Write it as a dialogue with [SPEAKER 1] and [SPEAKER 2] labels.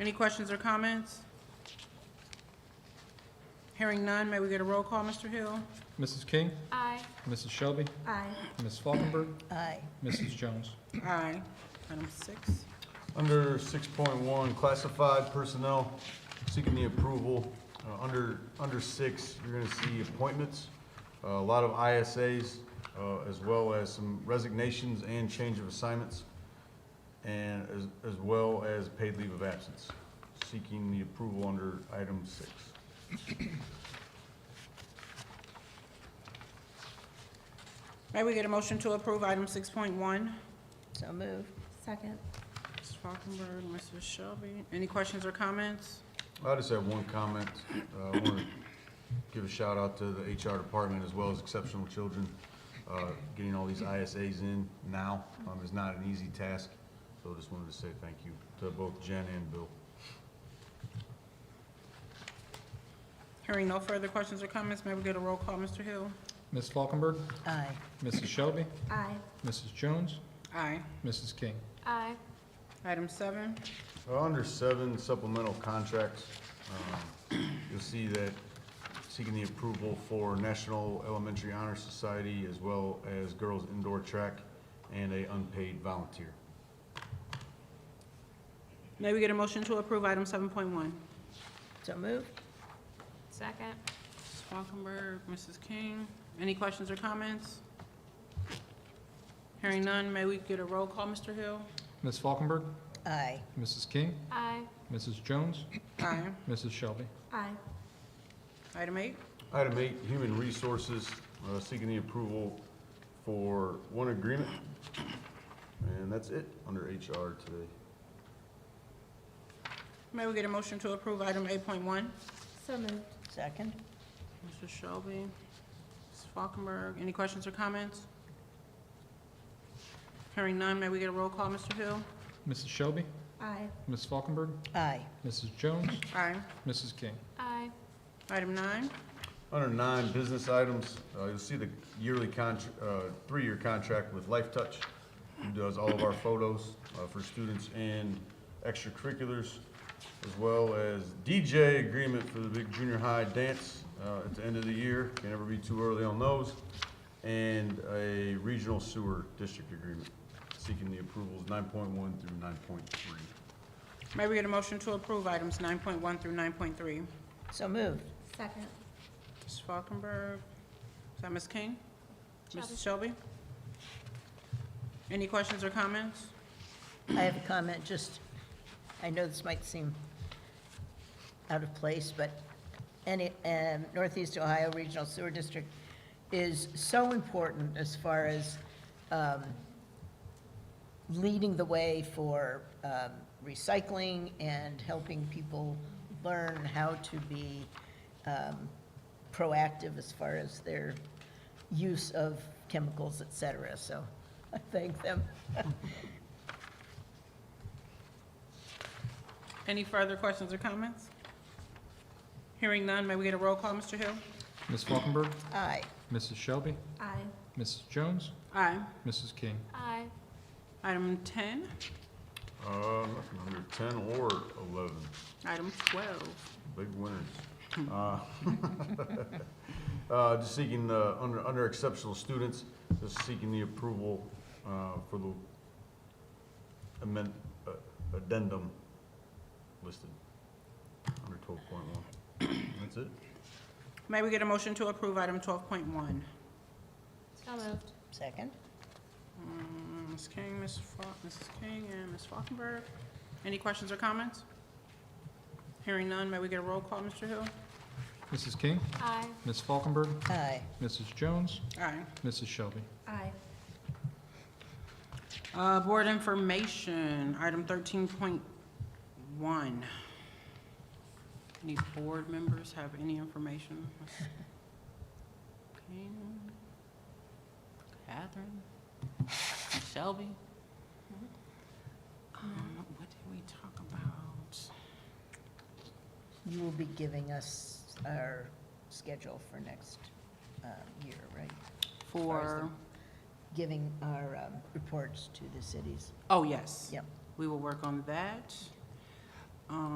[SPEAKER 1] Any questions or comments? Hearing none, may we get a roll call, Mr. Hill?
[SPEAKER 2] Mrs. King,
[SPEAKER 3] Aye.
[SPEAKER 2] Mrs. Shelby,
[SPEAKER 3] Aye.
[SPEAKER 2] Ms. Falkenberg,
[SPEAKER 4] Aye.
[SPEAKER 2] Mrs. Jones.
[SPEAKER 1] Aye. Item six.
[SPEAKER 5] Under 6.1, classified personnel, seeking the approval. Uh, Under, under six, you're going to see appointments, uh, a lot of ISAs, uh, as well as some resignations and change of assignments, and as, as well as paid leave of absence. Seeking the approval under item six.
[SPEAKER 1] May we get a motion to approve item six point one?
[SPEAKER 4] So move.
[SPEAKER 3] Second.
[SPEAKER 1] Ms. Falkenberg, Mrs. Shelby. Any questions or comments?
[SPEAKER 5] I just have one comment. Uh, I want to give a shout out to the HR department as well as Exceptional Children. Uh, Getting all these ISAs in now um, is not an easy task, so just wanted to say thank you to both Jen and Bill.
[SPEAKER 1] Hearing no further questions or comments, may we get a roll call, Mr. Hill?
[SPEAKER 2] Ms. Falkenberg,
[SPEAKER 4] Aye.
[SPEAKER 2] Mrs. Shelby,
[SPEAKER 3] Aye.
[SPEAKER 2] Mrs. Jones,
[SPEAKER 1] Aye.
[SPEAKER 2] Mrs. King.
[SPEAKER 3] Aye.
[SPEAKER 1] Item seven.
[SPEAKER 5] Uh, Under seven supplemental contracts, um, you'll see that seeking the approval for National Elementary Honor Society as well as Girls Indoor Track and a unpaid volunteer.
[SPEAKER 1] May we get a motion to approve item seven point one?
[SPEAKER 4] So move.
[SPEAKER 3] Second.
[SPEAKER 1] Ms. Falkenberg, Mrs. King. Any questions or comments? Hearing none, may we get a roll call, Mr. Hill?
[SPEAKER 2] Ms. Falkenberg,
[SPEAKER 4] Aye.
[SPEAKER 2] Mrs. King,
[SPEAKER 3] Aye.
[SPEAKER 2] Mrs. Jones,
[SPEAKER 1] Aye.
[SPEAKER 2] Mrs. Shelby.
[SPEAKER 3] Aye.
[SPEAKER 1] Item eight.
[SPEAKER 5] Item eight, human resources, uh, seeking the approval for one agreement. And that's it under HR today.
[SPEAKER 1] May we get a motion to approve item eight point one?
[SPEAKER 3] So moved.
[SPEAKER 4] Second.
[SPEAKER 1] Mr. Shelby, Ms. Falkenberg, any questions or comments? Hearing none, may we get a roll call, Mr. Hill?
[SPEAKER 2] Mrs. Shelby,
[SPEAKER 3] Aye.
[SPEAKER 2] Ms. Falkenberg,
[SPEAKER 4] Aye.
[SPEAKER 2] Mrs. Jones,
[SPEAKER 1] Aye.
[SPEAKER 2] Mrs. King.
[SPEAKER 3] Aye.
[SPEAKER 1] Item nine.
[SPEAKER 5] Under nine, business items, uh, you'll see the yearly contr uh, three-year contract with Life Touch, who does all of our photos, uh, for students and extracurriculars, as well as DJ agreement for the big junior high dance, uh, at the end of the year, can never be too early on those, and a regional sewer district agreement, seeking the approvals nine point one through nine point three.
[SPEAKER 1] May we get a motion to approve items nine point one through nine point three?
[SPEAKER 4] So moved.
[SPEAKER 3] Second.
[SPEAKER 1] Ms. Falkenberg, is that Ms. King?
[SPEAKER 3] Shelby.
[SPEAKER 1] Mrs. Shelby? Any questions or comments?
[SPEAKER 4] I have a comment, just, I know this might seem out of place, but any, um, Northeast Ohio Regional Sewer District is so important as far as um, leading the way for um, recycling and helping people learn how to be um, proactive as far as their use of chemicals, et cetera. So I thank them.
[SPEAKER 1] Any further questions or comments? Hearing none, may we get a roll call, Mr. Hill?
[SPEAKER 2] Ms. Falkenberg,
[SPEAKER 4] Aye.
[SPEAKER 2] Mrs. Shelby,
[SPEAKER 3] Aye.
[SPEAKER 2] Mrs. Jones,
[SPEAKER 1] Aye.
[SPEAKER 2] Mrs. King.
[SPEAKER 3] Aye.
[SPEAKER 1] Item ten,
[SPEAKER 5] Uh, nothing under ten or eleven,
[SPEAKER 1] item twelve.
[SPEAKER 5] big winners. Uh, Uh, just seeking, uh, under, under exceptional students, just seeking the approval, uh, for the amend, uh, addendum listed under twelve point one. That's it.
[SPEAKER 1] May we get a motion to approve item twelve point one?
[SPEAKER 3] So moved.
[SPEAKER 4] Second?
[SPEAKER 1] Ms. King, Ms. Fa, Mrs. King, and Ms. Falkenberg. Any questions or comments? Hearing none, may we get a roll call, Mr. Hill?
[SPEAKER 2] Mrs. King,
[SPEAKER 3] Aye.
[SPEAKER 2] Ms. Falkenberg,
[SPEAKER 4] Aye.
[SPEAKER 2] Mrs. Jones,
[SPEAKER 1] Aye.
[SPEAKER 2] Mrs. Shelby.
[SPEAKER 3] Aye.
[SPEAKER 1] Uh, board information, item thirteen point one. Any board members have any information? Ms. King, Catherine, Ms. Shelby? Um, what did we talk about?
[SPEAKER 4] You will be giving us our schedule for next um, year, right? far as
[SPEAKER 1] For,
[SPEAKER 4] Giving our um, reports to the cities.
[SPEAKER 1] oh, yes.
[SPEAKER 4] Yep.
[SPEAKER 1] We will work on that. um,